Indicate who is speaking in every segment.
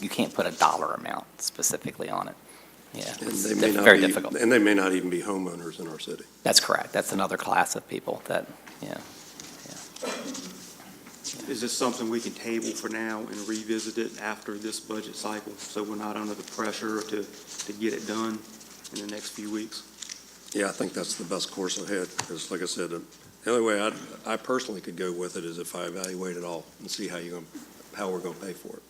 Speaker 1: you can't put a dollar amount specifically on it. Yeah,
Speaker 2: And
Speaker 1: it's
Speaker 2: they may
Speaker 1: diff-
Speaker 2: not
Speaker 1: very
Speaker 2: be-
Speaker 1: difficult.
Speaker 2: And they may not even be homeowners in our city.
Speaker 1: That's correct. That's another class of people that, yeah.
Speaker 3: Is this something we can table for now and revisit it after this budget cycle, so we're not under the pressure to, to get it done in the next few weeks?
Speaker 2: Yeah, I think that's the best course ahead, because like I said, um, the only way I, I personally could go with it is if I evaluate it all and see how you're going, how we're going to pay for it.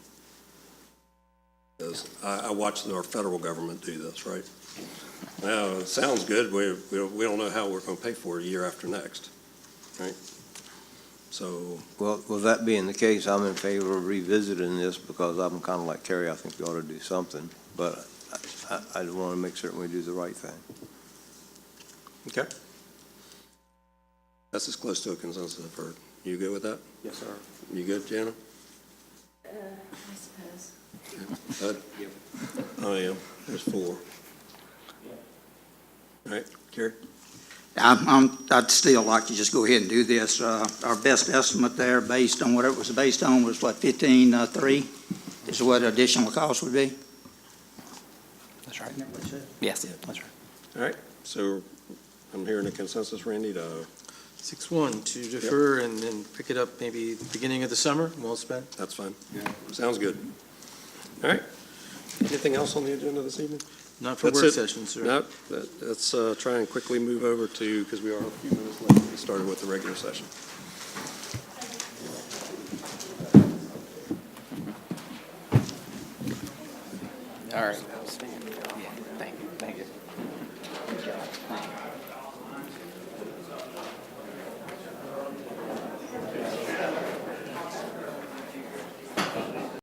Speaker 2: Because I, I watched our federal government do this, right? Now, it sounds good, we, we don't- we don't know how we're going to pay for it year after next, right? So,
Speaker 4: Well, well, that being the case, I'm in favor of revisiting this because I'm kind of like Terry, I think we ought to do something, but I, I want to make certain we do the right thing.
Speaker 2: okay. That's as close to a consensus I've heard. You good with that?
Speaker 3: Yes, sir.
Speaker 2: You good, Jana?
Speaker 5: I suppose.
Speaker 2: Bud? I am. Oh, There's four. All right, Terry?
Speaker 6: I'm, I'm, I'd still like to just go ahead and do this. Uh, our best estimate there, based on what it was based on, was what, fifteen, uh, three? Is what additional cost would be?
Speaker 1: That's right. Yes, that's right.
Speaker 2: All right, so I'm hearing a consensus, Randy, to, uh,
Speaker 7: Six one, to defer and then pick it up maybe the beginning of the summer, well spent.
Speaker 2: that's fine. Sounds good. All right. Anything else on the agenda this evening?
Speaker 7: Not for
Speaker 2: That's
Speaker 7: work
Speaker 2: it.
Speaker 7: session, sir.
Speaker 2: No, that- let's uh, try and quickly move over to, because we are a few minutes late, we started with the regular session.
Speaker 1: All right.